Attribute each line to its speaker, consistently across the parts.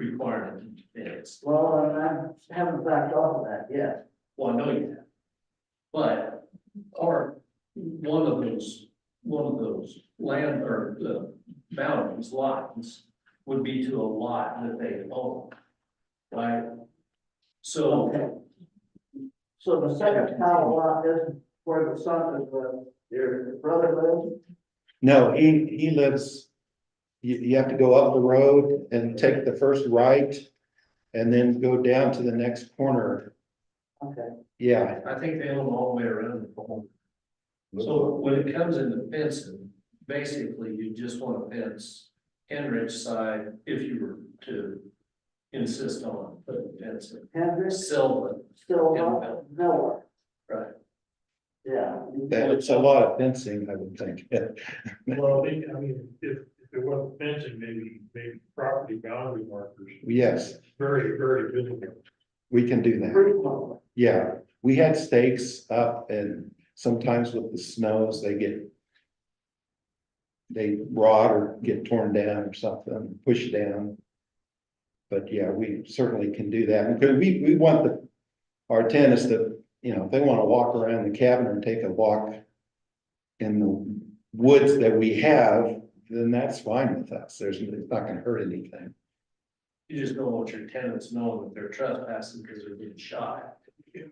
Speaker 1: requirement is.
Speaker 2: Well, I I haven't backed off of that yet.
Speaker 1: Well, I know you have. But, or, one of those, one of those land or the boundaries lots would be to a lot that they own. Right? So,
Speaker 2: Okay. So the second town lot isn't where the son is, uh, your brother lives?
Speaker 3: No, he, he lives, you, you have to go up the road and take the first right and then go down to the next corner.
Speaker 2: Okay,
Speaker 3: Yeah.
Speaker 1: I think they own all the way around the home. So when it comes into fencing, basically you just want to fence Henrich side if you were to insist on putting fencing.
Speaker 2: Hendrick's
Speaker 1: Sylvan,
Speaker 2: still not nowhere,
Speaker 1: right?
Speaker 2: yeah.
Speaker 3: That's a lot of fencing, I would think.
Speaker 4: Well, I think, I mean, if, if it wasn't fencing, maybe, maybe property boundary markers,
Speaker 3: Yes,
Speaker 4: very, very visible.
Speaker 3: we can do that.
Speaker 2: Frequently,
Speaker 3: Yeah, we had stakes up and sometimes with the snows, they get they rot or get torn down or something, pushed down. But yeah, we certainly can do that. Because we, we want the, our tenants to, you know, if they want to walk around the cabin or take a walk in the woods that we have, then that's fine with us. There's, it's not going to hurt anything.
Speaker 1: You just don't want your tenants knowing that they're trespassing because they're being shot.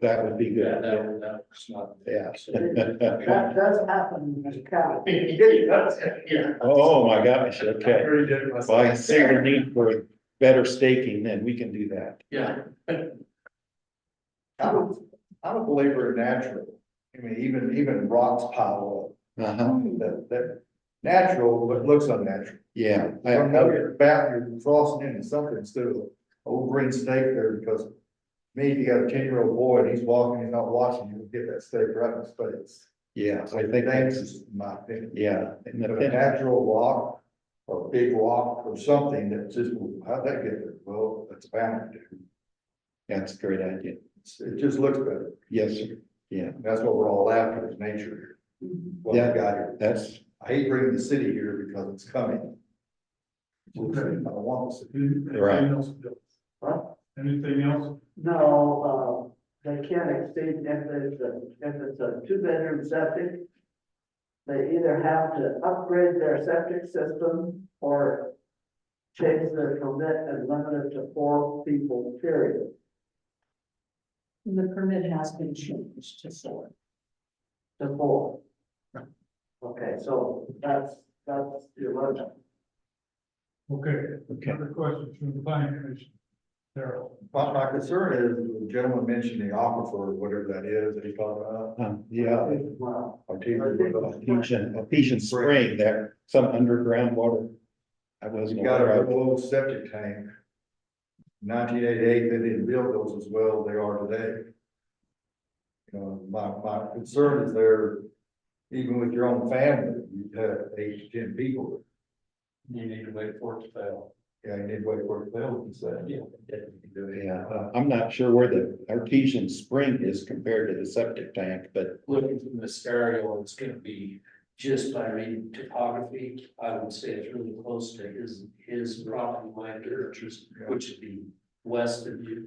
Speaker 3: That would be
Speaker 1: Yeah,
Speaker 3: good.
Speaker 1: that, that's not.
Speaker 3: Yeah.
Speaker 2: that does happen in this county.
Speaker 1: Yeah.
Speaker 3: Oh, my gosh, okay.
Speaker 4: Very dead.
Speaker 3: Well, I see the need for better staking, then we can do that.
Speaker 1: Yeah,
Speaker 5: I'm a, I'm a believer in natural. I mean, even, even rocks pile
Speaker 3: Uh-huh,
Speaker 5: up, that, that, natural, but looks unnatural.
Speaker 3: yeah,
Speaker 5: I don't
Speaker 3: I,
Speaker 5: know, you're about, you're crossing into something, still, old green snake there, because me, if you got a ten-year-old boy and he's walking, he's not watching, you'll get that snake right in his face.
Speaker 3: yeah, I
Speaker 5: It's
Speaker 3: think that's,
Speaker 5: dangerous, in my opinion.
Speaker 3: yeah. and the
Speaker 5: But a
Speaker 3: fence-
Speaker 5: natural rock, or a big rock, or something that just, well, how'd that get there? Well, it's bound to.
Speaker 3: That's a great idea.
Speaker 5: It's- It just looks better.
Speaker 3: Yes, sir,
Speaker 5: That's what we're all after, is nature here.
Speaker 2: Hmm.
Speaker 5: What we
Speaker 3: Yeah.
Speaker 5: got here.
Speaker 3: that's,
Speaker 5: I hate bringing the city here because it's coming. I don't want the city.
Speaker 3: Right.
Speaker 4: Anything else? Bill?
Speaker 2: What?
Speaker 4: Anything else?
Speaker 2: No, uh, they can't exceed, if it's a, if it's a two-bedroom septic, they either have to upgrade their septic system or change their permit and limit it to four people, period.
Speaker 6: The permit has been changed to four.
Speaker 2: to four. Okay, so that's, that's your limit.
Speaker 4: Okay,
Speaker 3: okay.
Speaker 4: other questions from the planning commission? Daryl,
Speaker 5: My, my concern is the gentleman mentioned the aquifer, whatever that is, that he uh, talked about.
Speaker 3: Um, yeah,
Speaker 2: Wow.
Speaker 5: Or two, whatever.
Speaker 3: Ephesian, Ephesian spring there, some underground water. I wasn't
Speaker 5: You got a
Speaker 3: aware of.
Speaker 5: little old septic tank. Nineteen eighty-eight, they didn't build those as well as they are today. You know, my, my concern is there, even with your own family, you have eight to ten people.
Speaker 1: you need to wait for it to fail.
Speaker 5: Yeah, you need to wait for it to build, and say.
Speaker 1: Yeah.
Speaker 3: Yeah, uh, I'm not sure where the artesian spring is compared to the septic tank, but
Speaker 1: Looking from the stereo, it's gonna be just by reading topography, I would say it's really close to his, his property line, which is, which would be west of you.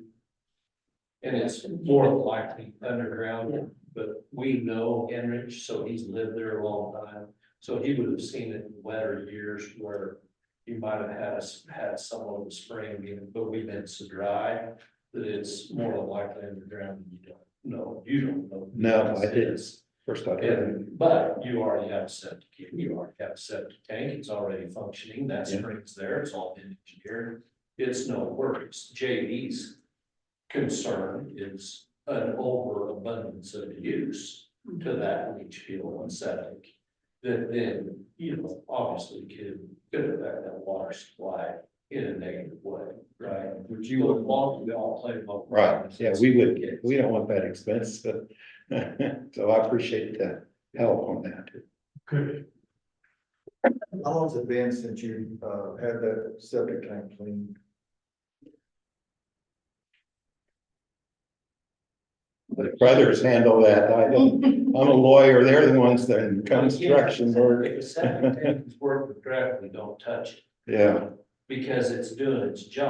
Speaker 1: And it's more likely underground, but we know Henrich, so he's lived there a long time. So he would have seen it in wetter years where you might have had, us- had someone in the spring, you know, but we've been so dry that it's more than likely underground and you don't know, you don't know.
Speaker 3: No, I didn't.
Speaker 1: It's-
Speaker 3: first I heard.
Speaker 1: And, but you already have a septic, you already have a septic tank, it's already functioning, that
Speaker 3: Yeah.
Speaker 1: spring's there, it's all been engineered. It's no worries, JD's concern is an overabundance of use to that leach field and septic. That then, you know, obviously could, could affect that water supply in a negative way, right?
Speaker 5: Would
Speaker 1: You
Speaker 5: you,
Speaker 1: would want, we all play. both
Speaker 3: Right,
Speaker 1: sides.
Speaker 3: yeah, we would, we don't want that expense, but, so I appreciate the help on that.
Speaker 4: okay,
Speaker 5: how long's it been since you, uh, had that septic tank cleaned?
Speaker 3: The brothers handle that. I don't, I'm a lawyer. They're the ones that are in construction work.
Speaker 1: If a septic tank is working correctly, don't touch it,
Speaker 3: Yeah.
Speaker 1: because it's doing its job.